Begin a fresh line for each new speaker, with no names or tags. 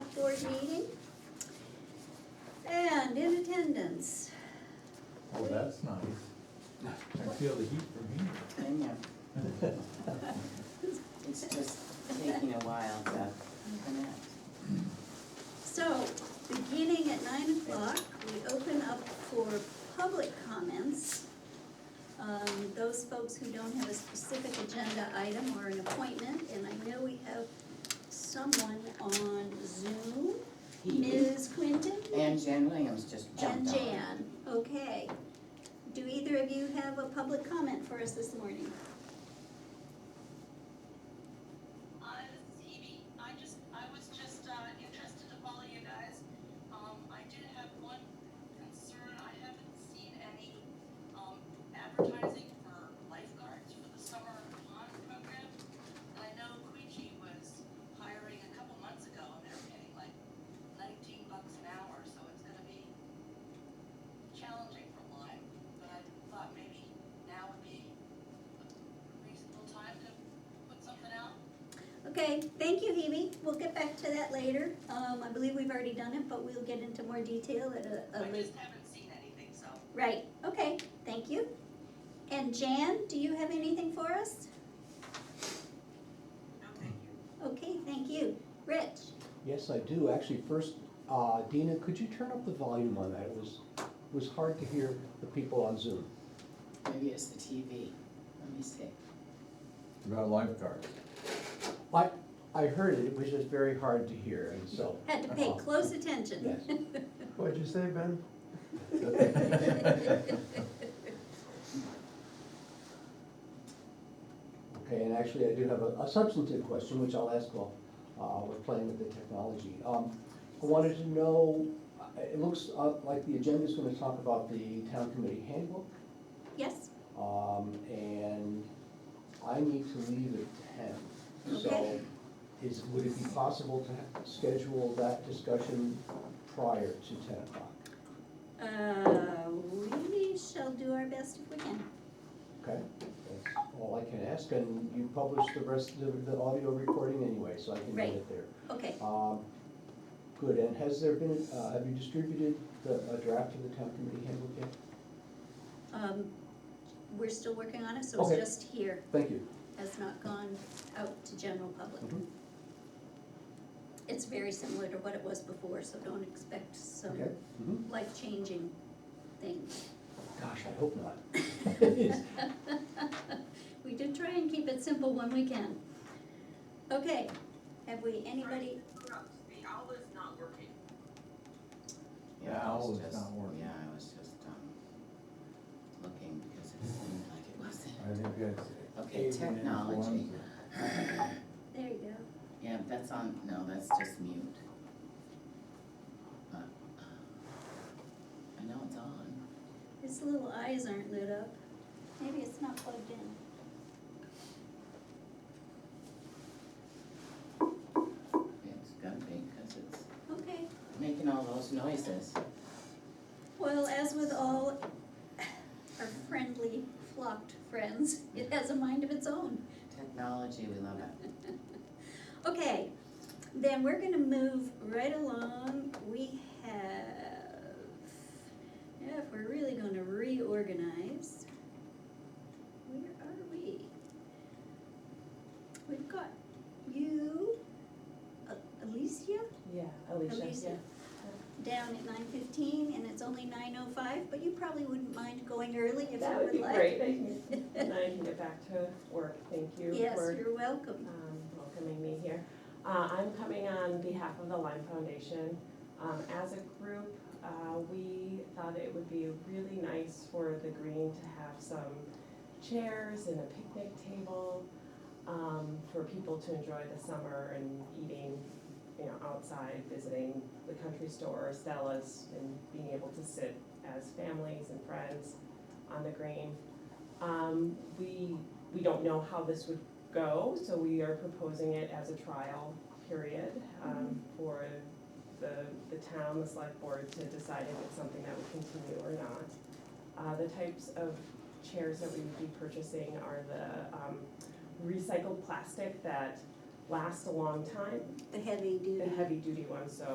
this meeting. And in attendance,
Oh, that's nice. I feel the heat from here.
I know. It's just taking a while to connect.
So, beginning at nine o'clock, we open up for public comments. Um, those folks who don't have a specific agenda item or an appointment, and I know we have someone on Zoom.
He
Ms. Quinton
and Jan Williams just
and
jumped on.
Jan, okay. Do either of you have a public comment for us this morning?
Hi, this is Hebe. Uh, I just, I was just uh, interested to follow you guys. Um, I did have one concern. I haven't seen any um, advertising for lifeguards for the summer pond program. And I know Queechy was hiring a couple months ago, and they're paying like 19 bucks an hour, so it's going to be challenging for Lyme. But I thought maybe now would be a reasonable time to put something out.
Okay, thank you, Hebe. We'll get back to that later. Um, I believe we've already done it, but we'll get into more detail at a, a
I
later.
just haven't seen anything, so.
Right, okay, thank you. And Jan, do you have anything for us?
No, thank you.
Okay, thank you. Rich?
Yes, I do. Actually, first, uh, Dina, could you turn up the volume on that? It was, it was hard to hear the people on Zoom.
Maybe it's the TV. Let me see.
About lifeguards.
I, I heard it, it was just very hard to hear, and so.
Had to pay close attention.
What'd you say, Ben?
Okay, and actually, I do have a a substantive question, which I'll ask while uh, we're playing with the technology. Um, I wanted to know, uh, it looks uh, like the agenda's gonna talk about the town committee handbook.
Yes,
Um, and I need to leave at ten, so
Okay.
is, would it be possible to ha- schedule that discussion prior to ten o'clock?
uh, we shall do our best if we can.
Okay, that's all I can ask, and you publish the rest of the audio recording anyway, so I can get
Right.
it there.
Okay,
Um, good, and has there been, uh, have you distributed the, a draft of the town committee handbook yet?
um, we're still working on it, so it's
Okay.
just here,
Thank you.
has not gone out to general public.
Mhm.
It's very similar to what it was before, so don't expect some
Okay. Mhm.
life-changing things.
Gosh, I hope not. It's-
We did try and keep it simple when we can. Okay, have we, anybody,
The owl is not working.
The
Yeah, I was
owl is
just-
not working.
Yeah, I was just, um, looking because it seemed like it wasn't.
I think that's.
Okay,
avian
technology.
influenza.
there you go.
Yeah, that's on, no, that's just mute. Uh, uh, I know it's on.
His little eyes aren't lit up. Maybe it's not plugged in.
It's gotta be because it's
Okay,
making all those noises.
well, as with all our friendly flocked friends, it has a mind of its own.
Technology, we love it.
Okay, then we're gonna move right along. We have, yeah, if we're really gonna reorganize, where are we? We've got you, A- Alicia?
Yeah, Alicia,
Alicia.
yeah.
Down at nine fifteen, and it's only nine oh five, but you probably wouldn't mind going early if you would like.
That would be great, I can, and I can get back to work, thank you
Yes,
for
you're welcome.
um, welcoming me here. Uh, I'm coming on behalf of the Lyme Foundation. Um, As a group, uh, we thought it would be really nice for the green to have some chairs and a picnic table um, for people to enjoy the summer and eating, you know, outside, visiting the country store, Stella's, and being able to sit as families and friends on the green. Um, We, we don't know how this would go, so we are proposing it as a trial period um, for the, the town, the select board to decide if it's something that would continue or not. Uh, The types of chairs that we would be purchasing are the um, recycled plastic that last a long time,
The heavy duty.
the heavy duty ones, so